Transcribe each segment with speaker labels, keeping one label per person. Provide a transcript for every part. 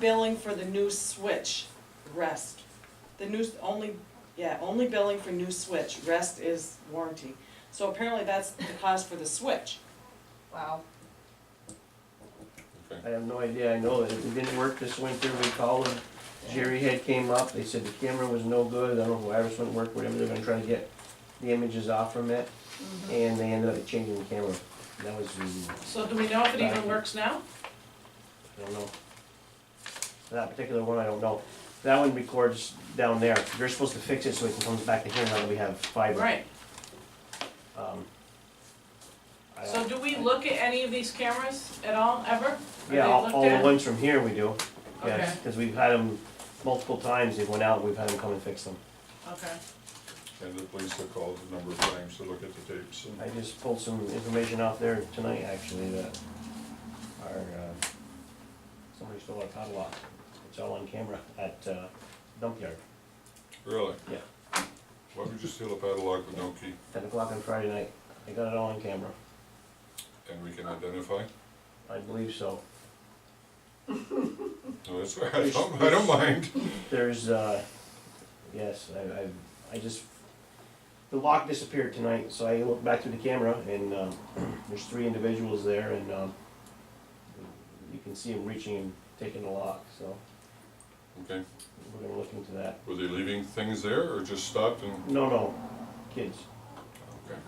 Speaker 1: Billing for the new switch, rest. The new, only, yeah, only billing for new switch, rest is warranty. So apparently that's the cost for the switch.
Speaker 2: Wow.
Speaker 3: I have no idea, I know that it didn't work this winter, we called them, Jerry had came up, they said the camera was no good, I don't know, Iris wouldn't work, whatever, they're gonna try to get the images off from it,
Speaker 4: Mm-hmm.
Speaker 3: and they ended up changing the camera, that was, the-
Speaker 4: So do we know if it even
Speaker 3: Right.
Speaker 4: works now?
Speaker 3: I don't know. That particular one, I don't know, that one records down there, they're supposed to fix it so it comes back to here now that we have fiber.
Speaker 4: Right,
Speaker 3: Um, I don't-
Speaker 4: so do we look at any of these cameras at all, ever?
Speaker 3: Yeah, all, all the
Speaker 4: Are they looked
Speaker 3: ones from here we do, yes,
Speaker 4: Okay.
Speaker 3: cause we've had them multiple times, they went out, we've had them come and fix them.
Speaker 4: at? Okay,
Speaker 5: And the police have called a number of times to look at the tapes and.
Speaker 3: I just pulled some information off there tonight, actually, that our, uh, somebody stole our padlock. It's all on camera at uh, dump yard,
Speaker 5: Really?
Speaker 3: Yeah.
Speaker 5: Why would you steal a padlock with no key
Speaker 3: ten o'clock on Friday night. They got it all on camera.
Speaker 5: and we can identify?
Speaker 3: I believe so.
Speaker 5: No, that's, all right. I don't, I don't mind.
Speaker 3: There's, uh, yes, I, I, I just, the lock disappeared tonight, so I looked back through the camera and, um, there's three individuals there and, um, you can see them reaching and taking the lock, so
Speaker 5: Okay,
Speaker 3: we're gonna look into that.
Speaker 5: were they leaving things there or just stopped and,
Speaker 3: No, no, kids.
Speaker 5: okay,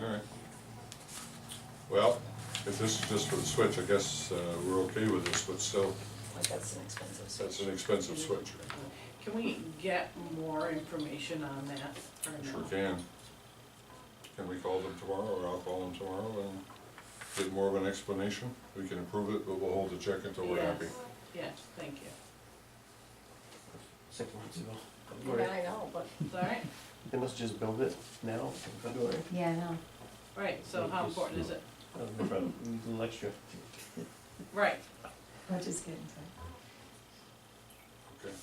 Speaker 5: all right. Well, if this is just for the switch, I guess, uh, we're okay with this, but still,
Speaker 2: Like, that's an expensive
Speaker 5: that's an expensive switch.
Speaker 4: can we get more information on that or no?
Speaker 5: Sure can. Can we call them tomorrow or I'll call them tomorrow and get more of an explanation? We can approve it, but we'll hold the check until we're happy.
Speaker 4: Yes, yes, thank you,
Speaker 3: six months ago.
Speaker 2: Yeah, I know, but.
Speaker 4: it's all right,
Speaker 3: They must just build it now in February.
Speaker 6: Yeah, I know.
Speaker 4: right, so how important is it?
Speaker 3: That was no problem. We need a little extra.
Speaker 4: Right,
Speaker 6: I'll just get inside.
Speaker 5: Okay.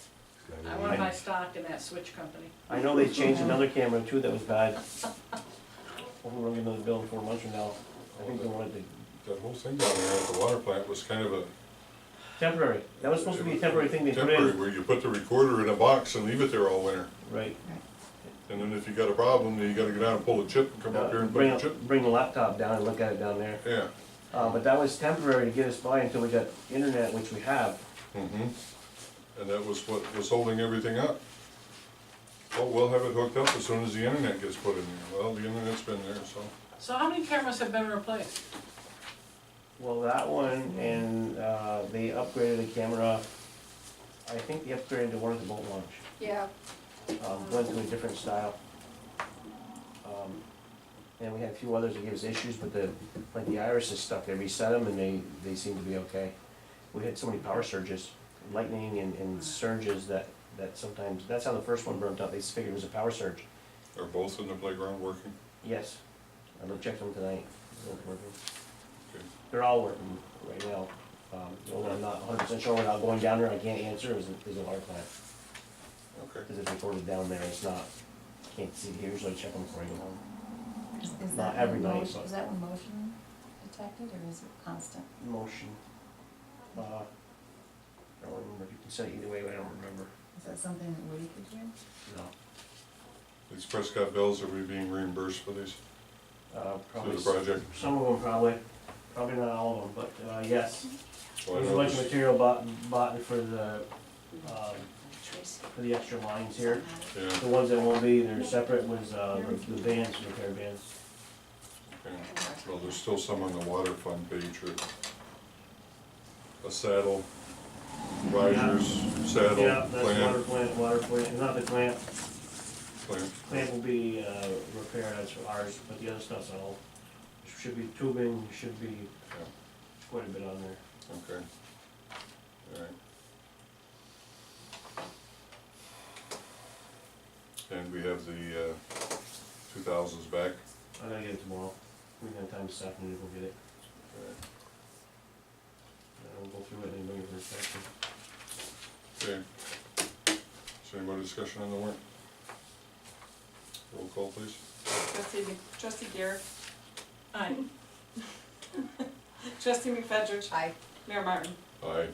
Speaker 4: I wanna buy stock in that switch company.
Speaker 3: I know they changed another camera too that was bad. Hopefully we're gonna get another bill in four months from now. I think they wanted to,
Speaker 5: That whole thing down there at the water plant was kind of a.
Speaker 3: temporary. That was supposed to be a temporary thing they put
Speaker 5: Temporary,
Speaker 3: in.
Speaker 5: where you put the recorder in a box and leave it there all winter.
Speaker 3: Right.
Speaker 5: And then if you got a problem, then you gotta go down and pull a chip and come up here
Speaker 3: Uh,
Speaker 5: and put
Speaker 3: Bring,
Speaker 5: a
Speaker 3: a-
Speaker 5: chip.
Speaker 3: bring the laptop down and look at it down there.
Speaker 5: Yeah.
Speaker 3: Uh, but that was temporary to get us by until we got internet, which we have.
Speaker 5: Mm-hmm. And that was what was holding everything up. Well, we'll have it hooked up as soon as the internet gets put in there. Well, the internet's been there, so.
Speaker 4: So how many cameras have been replaced?
Speaker 3: Well, that one and, uh, they upgraded the camera. I think they upgraded the one at the boat launch.
Speaker 2: Yeah.
Speaker 3: um, went to a different style. Um, And we had a few others that gave us issues, but the, like the irises stuck, they reset them and they, they seem to be okay. We had so many power surges, lightning and, and surges that, that sometimes, that's how the first one burnt out, they figured it was a power surge.
Speaker 5: Are both in the playground working?
Speaker 3: Yes, I looked, checked them tonight, They're working.
Speaker 5: Okay.
Speaker 3: They're all working right now. Um, The only one I'm not hundred percent sure without going down there, I can't answer, is, is a hard plant,
Speaker 5: Okay.
Speaker 3: because it's recorded down there, it's not, can't see here, usually I check them before I go home.
Speaker 6: Is- is that
Speaker 3: Not every
Speaker 6: one
Speaker 3: night,
Speaker 6: motion-
Speaker 3: but-
Speaker 6: Is that one motion detected or is it constant?
Speaker 3: motion. Uh, I don't remember, you can say it either way, but I don't remember.
Speaker 6: Is that something that Woody could do?
Speaker 3: No.
Speaker 5: These Prescott Bells, are we being reimbursed for these,
Speaker 3: Uh,
Speaker 5: through
Speaker 3: probably,
Speaker 5: the
Speaker 3: s-
Speaker 5: project?
Speaker 3: some of them probably, probably not all of them, but, uh, yes.
Speaker 5: So Oh, I
Speaker 3: There's a
Speaker 5: know
Speaker 3: bunch of
Speaker 5: this-
Speaker 3: material bought, bought for the, um, for the extra lines here.
Speaker 5: Yeah,
Speaker 3: The ones that won't be, they're separate, was, uh, the- the bands, repair bands.
Speaker 5: okay. Well, there's still some on the water fund page, or a saddle, risers, saddle,
Speaker 3: Yeah, that's water
Speaker 5: plant,
Speaker 3: plant, water plant, not the clamp,
Speaker 5: plant.
Speaker 3: clamp will be, uh, repaired, that's ours, but the other stuff's all, should be tubing, should be
Speaker 5: Yeah.
Speaker 3: quite a bit on there.
Speaker 5: Okay. Alright. And we have the, uh, two thousands back.
Speaker 3: I gotta get it tomorrow. We got time this afternoon to go get it. I'll go through it and bring it for inspection.
Speaker 5: Okay. Is there any more discussion on the warrant? Roll call, please.
Speaker 1: Trustee, trustee Garrett,
Speaker 4: Aye.
Speaker 1: trustee McFetrich,
Speaker 2: I,
Speaker 1: Mayor Martin.
Speaker 5: Aye.